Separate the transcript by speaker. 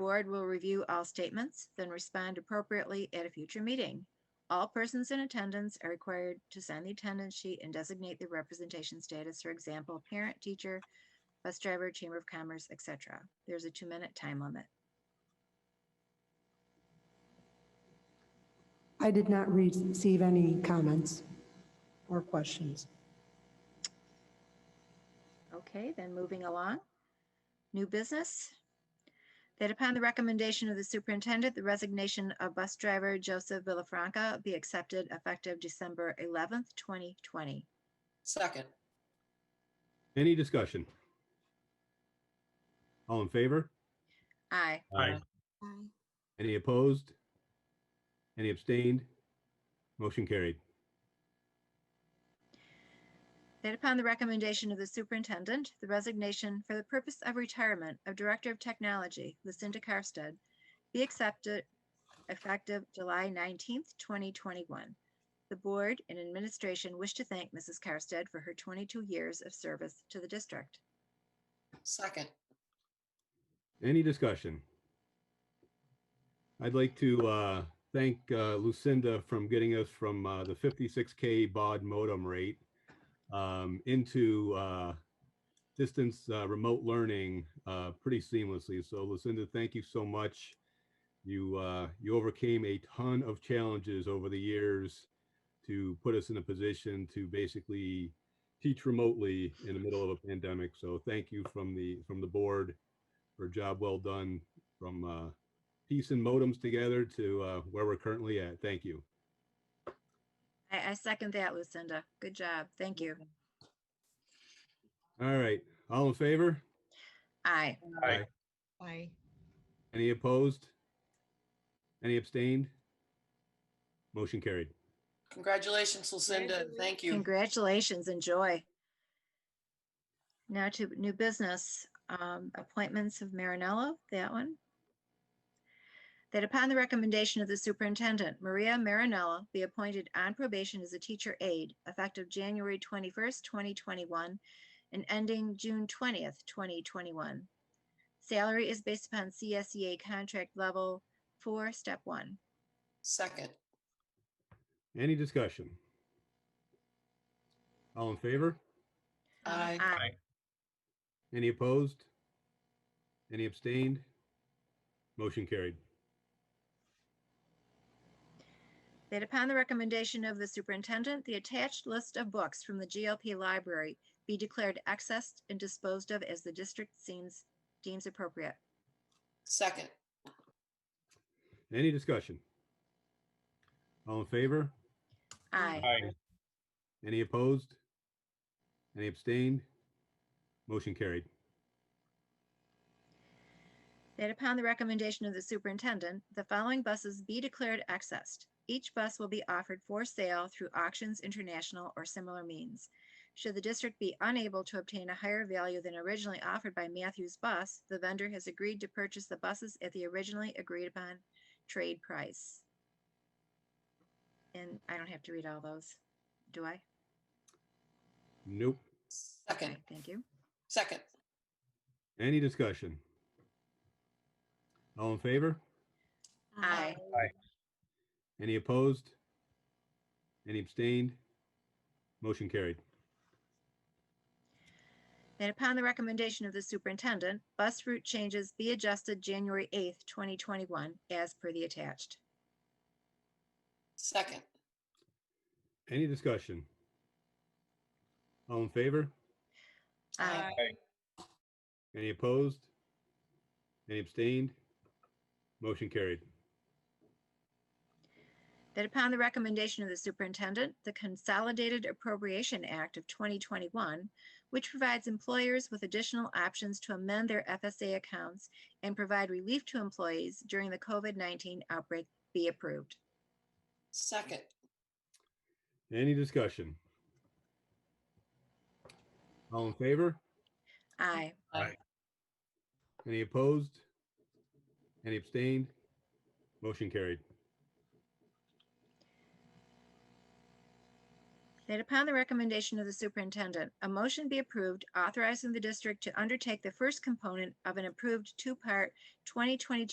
Speaker 1: Board will review all statements, then respond appropriately at a future meeting. All persons in attendance are required to sign the attendance sheet and designate their representation status, for example, parent, teacher, bus driver, chamber of commerce, etc. There's a two-minute time limit.
Speaker 2: I did not receive any comments or questions.
Speaker 1: Okay, then moving along. New business. That upon the recommendation of the superintendent, the resignation of bus driver Joseph Villafranca be accepted effective December 11th, 2020.
Speaker 3: Second.
Speaker 4: Any discussion? All in favor?
Speaker 1: Aye.
Speaker 3: Aye.
Speaker 4: Any opposed? Any abstained? Motion carried.
Speaker 1: That upon the recommendation of the superintendent, the resignation for the purpose of retirement of Director of Technology Lucinda Karstad be accepted effective July 19th, 2021. The board and administration wish to thank Mrs. Karstad for her 22 years of service to the district.
Speaker 3: Second.
Speaker 4: Any discussion? I'd like to uh, thank uh, Lucinda from getting us from uh, the 56K baud modem rate um, into uh, distance uh, remote learning uh, pretty seamlessly. So Lucinda, thank you so much. You, uh, you overcame a ton of challenges over the years to put us in a position to basically teach remotely in the middle of a pandemic. So thank you from the, from the board for a job well done from uh, piecing modems together to uh, where we're currently at. Thank you.
Speaker 1: I, I second that, Lucinda. Good job. Thank you.
Speaker 4: All right, all in favor?
Speaker 1: Aye.
Speaker 4: Aye.
Speaker 5: Aye.
Speaker 4: Any opposed? Any abstained? Motion carried.
Speaker 3: Congratulations, Lucinda. Thank you.
Speaker 1: Congratulations. Enjoy. Now to new business, um, appointments of Marinello, that one. That upon the recommendation of the superintendent, Maria Marinello be appointed on probation as a teacher aide effective January twenty-first, twenty twenty-one and ending June twentieth, twenty twenty-one. Salary is based upon CSEA contract level four, step one.
Speaker 3: Second.
Speaker 4: Any discussion? All in favor?
Speaker 3: Uh, Aye.
Speaker 1: Aye.
Speaker 4: Any opposed? Any abstained? Motion carried.
Speaker 1: That upon the recommendation of the superintendent, the attached list of books from the GLP library be declared accessed and disposed of as the district seems, deems appropriate.
Speaker 3: Second.
Speaker 4: Any discussion? All in favor?
Speaker 1: Aye.
Speaker 4: Any opposed? Any abstained? Motion carried.
Speaker 1: That upon the recommendation of the superintendent, the following buses be declared accessed. Each bus will be offered for sale through auctions, international, or similar means. Should the district be unable to obtain a higher value than originally offered by Matthews Bus, the vendor has agreed to purchase the buses at the originally agreed upon trade price. And I don't have to read all those, do I?
Speaker 4: Nope.
Speaker 3: Second.
Speaker 1: Okay, Thank you.
Speaker 3: Second.
Speaker 4: Any discussion? All in favor?
Speaker 1: Aye.
Speaker 4: Any opposed? Any abstained? Motion carried.
Speaker 1: That upon the recommendation of the superintendent, bus route changes be adjusted January 8th, 2021, as per the attached.
Speaker 3: Second.
Speaker 4: Any discussion? All in favor?
Speaker 1: Aye.
Speaker 4: Any opposed? Any abstained? Motion carried.
Speaker 1: That upon the recommendation of the superintendent, the Consolidated Appropriation Act of 2021, which provides employers with additional options to amend their FSA accounts and provide relief to employees during the COVID-19 outbreak, be approved.
Speaker 3: Second.
Speaker 4: Any discussion? All in favor?
Speaker 1: Aye.
Speaker 4: Any opposed? Any abstained? Motion carried.
Speaker 1: That upon the recommendation of the superintendent, a motion be approved authorizing the district to undertake the first component of an approved two-part 2022